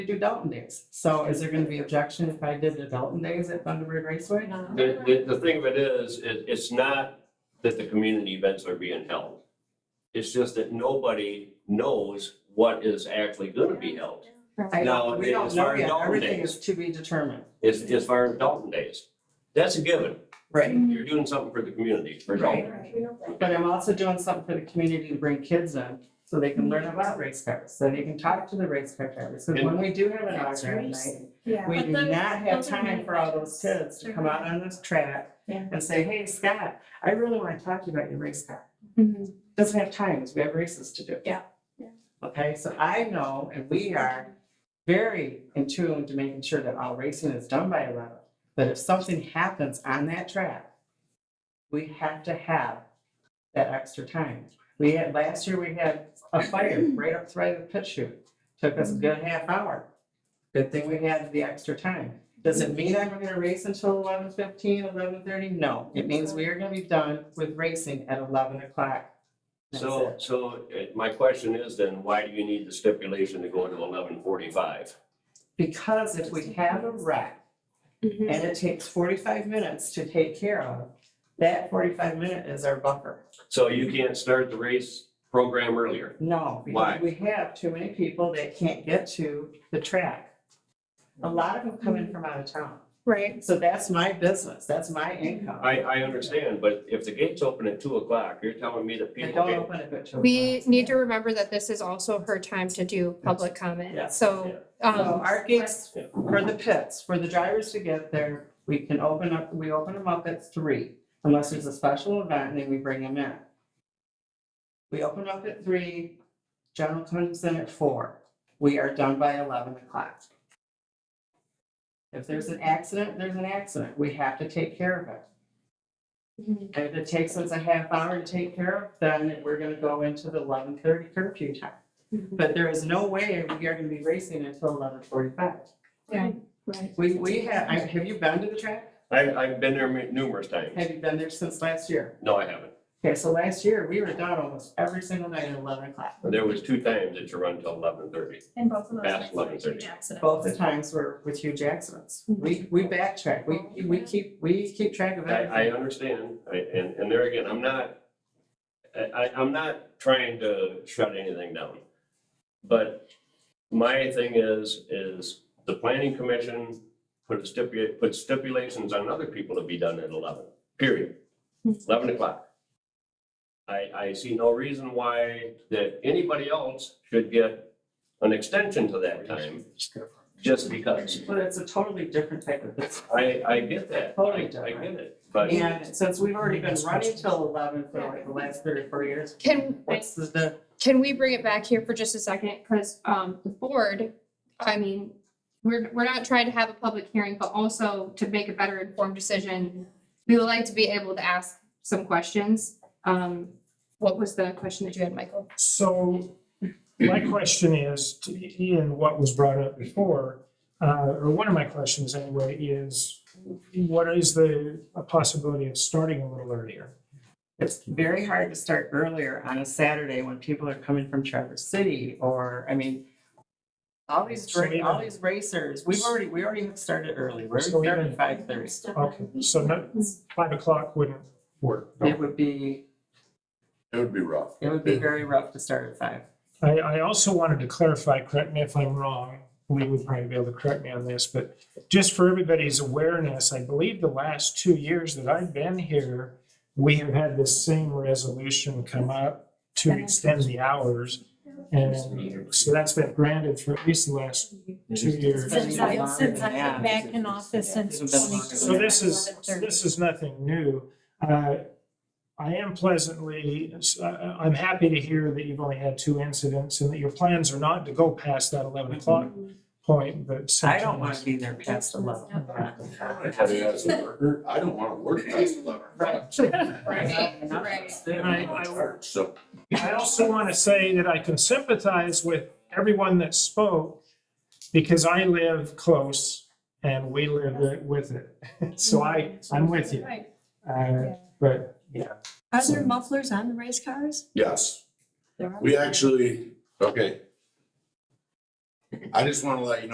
to do Dalton Days. So is there gonna be objection if I did the Dalton Days at Thunderbird Raceway? The, the, the thing of it is, it, it's not that the community events are being held. It's just that nobody knows what is actually gonna be held. I- No, we don't as know far as yet. Dalton Everything Days. is to be determined. It's, as far as Dalton Days. That's a given. Right. You're doing something for the community, for Dalton. But I'm also doing something for the community to bring kids in, so they can learn about race cars, so they can talk to the race car drivers. Because when we do have an That's autograph night, racing. Yeah. we But do those- not have those are time many for all those questions. kids to They're come out on this track Yeah. and say, hey, Scott, I really want to talk to you about your race car. Doesn't have time, because we have races to do. Yeah. Yeah. Okay, so I know, and we are very in tune to making sure that all racing is done by eleven. But if something happens on that track, we have to have that extra time. We had, last year, we had a fire right up right at the pit chute. Took us a good half hour. Good thing we had the extra time. Does it mean I'm gonna race until 11:15, 11:30? No, it means we are gonna be done with racing at eleven o'clock. That's So, it. so uh, my question is then, why do you need the stipulation to go to eleven forty-five? Because if we have a wreck, and it takes forty-five minutes to take care of, that forty-five minute is our buffer. So you can't start the race program earlier. No, Why? because we have too many people that can't get to the track. A lot of them come in from out of town, Right. so that's my business, that's my income. I, I understand, but if the gates open at two o'clock, you're telling me that They people don't can open it at two We o'clock. need to remember that this is also her time to do public Yeah. comment, so, So um, our gates Yeah. for the pits, for the drivers to get there, we can open up, we open them up at three, unless there's a special event, and then we bring them in. We open up at three, general comes in at four, we are done by eleven o'clock. If there's an accident, there's an accident, we have to take care of it. Mhm. And if it takes us a half hour to take care of, then we're gonna go into the eleven thirty curfew time. mm-hmm, But there is no way we are gonna be racing until eleven forty-five. Right, right. We, we have, I- have you been to the track? I, I've been there mu- numerous times. Have you been there since last year? No, I haven't. Okay, so last year, we were down almost every single night at eleven o'clock. There was two times that you run till eleven thirty. And both of those. Past things were 11:30. huge accidents. Both the times were with huge accidents. We, we backtrack, we, we keep, we keep track of I, I everything. understand, I, and, and there again, I'm not, I, I, I'm not trying to shut anything down. But my thing is, is the planning commission put stipulate, put stipulations on other people to be done at eleven, period. Eleven o'clock. I, I see no reason why that anybody else should get an extension to that time, just because. But it's a totally different type of business. I, I get that, I, I Totally get different. it, but. And since we've already been running till eleven for like the last three or four years, Can, what's the- the, can we bring it back here for just a second? Because, um, the board, I mean, we're, we're not trying to have a public hearing, but also to make a better informed decision. We would like to be able to ask some questions. Um, what was the question that you had, Michael? So my question is, to Ian, what was brought up before, uh, or one of my questions anyway, is what is the possibility of starting a little earlier? it's very hard to start earlier on a Saturday when people are coming from Traverse City or, I mean, all these, So dra- all even- these racers, we've already, we already have started early. We're So even- starting five thirty. Okay, so no, five o'clock wouldn't work. It would be, It would be rough. it would be very rough to start at five. I, I also wanted to clarify, correct me if I'm wrong, Lee would probably be able to correct me on this, but just for everybody's awareness, I believe the last two years that I've been here, we have had this same resolution come up to extend the hours. And so that's been granted for at least the last two years. Since I, since I've been back in office since It's been longer. twenty. So this is, this is nothing new. Uh, I am pleasantly, I- I- I'm happy to hear that you've only had two incidents and that your plans are not to go past that 11 o'clock point, but. I don't want to be there past eleven. I don't wanna work past eleven. Right. And I- I- So, I also want to say that I can sympathize with everyone that spoke because I live close and we live it- with it. So I, I'm with you. Uh, But, yeah. Are there mufflers on the race cars? yes, There are. we actually, okay. I just wanna let you know.